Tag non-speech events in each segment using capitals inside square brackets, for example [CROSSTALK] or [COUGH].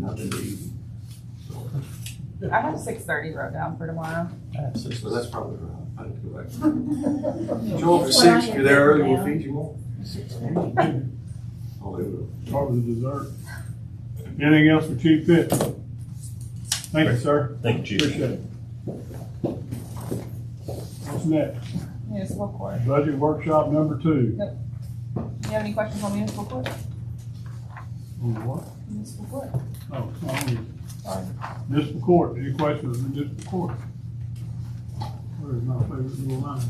nothing to eat. I have six thirty wrote down for tomorrow. So that's probably right. I have to go back. Joel, for six, if you're there early, we'll feed you more. Oh, they will. Probably dessert. Anything else for Chief Pitt? Thank you, sir. Thank you, Chief. Appreciate it. What's next? Municipal court. Budget workshop number two. You have any questions on municipal court? On what? Municipal court. Oh, on municipal court. Any questions on municipal court? Where's my favorite little line?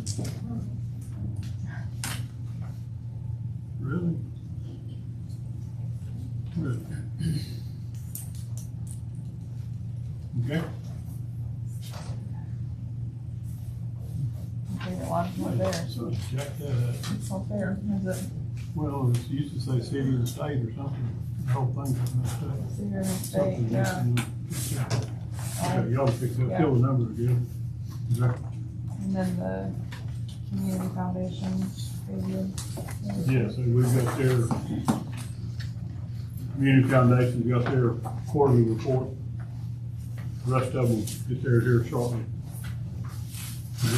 Really? Really? [CLEARS THROAT] Okay. My favorite one, one there. So check that out. It's not fair, is it? Well, it used to say city and state or something, the whole thing was messed up. It's here in the state, Something yeah. messed up. Um, Okay, Y'all fix that, fill the number again. Exactly. And then the community foundation. they did. Yeah, so we've got their, Community Foundation's got their quarterly report. The Rest of them get theirs here shortly.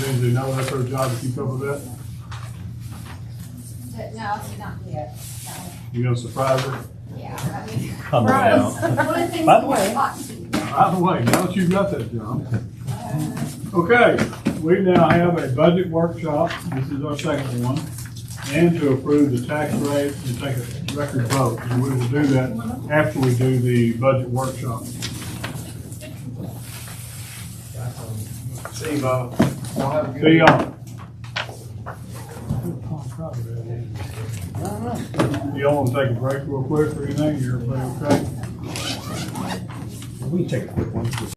Lindsay, now that's our job to keep up with that. But no, she's not here, no, You gonna surprise her? yeah, I mean, [LAUGHS] [LAUGHS] Come on Gross. now. one of the things. By the we way- want to- By the way, now that you've got that, John. Okay, we now have a budget workshop, this is our second one, and to approve the tax rate and take a record vote. And we will do that after we do the budget workshop. See you, Bob. Y'all have a good- See y'all. Y'all wanna take a break real quick or anything, everybody okay? We can take a quick one.